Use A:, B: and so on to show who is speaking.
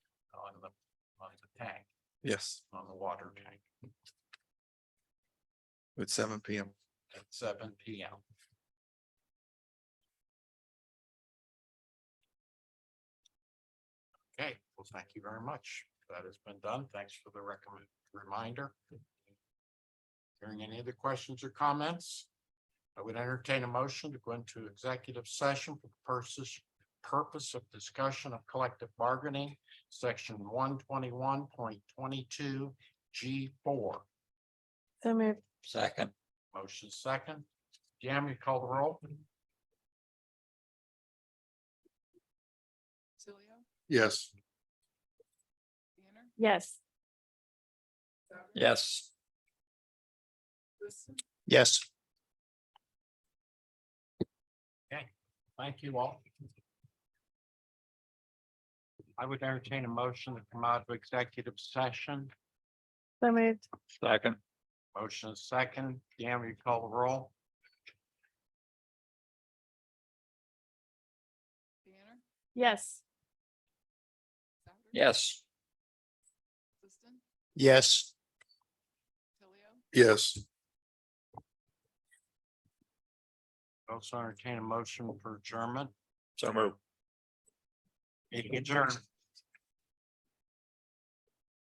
A: Yes,
B: on the water tank
A: at seven P M.
B: at seven P M. Okay, well, thank you very much. That has been done. Thanks for the recommend, reminder. Hearing any other questions or comments? I would entertain a motion to go into executive session for the purposes, purpose of discussion of collective bargaining, section one twenty-one point twenty-two G four.
C: So moved.
D: Second,
B: Motion second. Yam, you call the roll?
E: Tilio,
A: Yes.
E: Banner,
C: Yes.
E: Souter,
D: yes.
E: Liston,
D: Yes.
B: Thank you all. I would entertain a motion to come out of executive session.
C: So moved.
D: Second,
B: Motion is second. Yam, you call the roll?
E: Banner,
C: Yes.
E: Souter.
D: yes.
E: Liston,
D: Yes.
E: Tilio,
A: Yes.
B: Also entertain a motion for adjournment.
D: So moved.
B: Adjourn.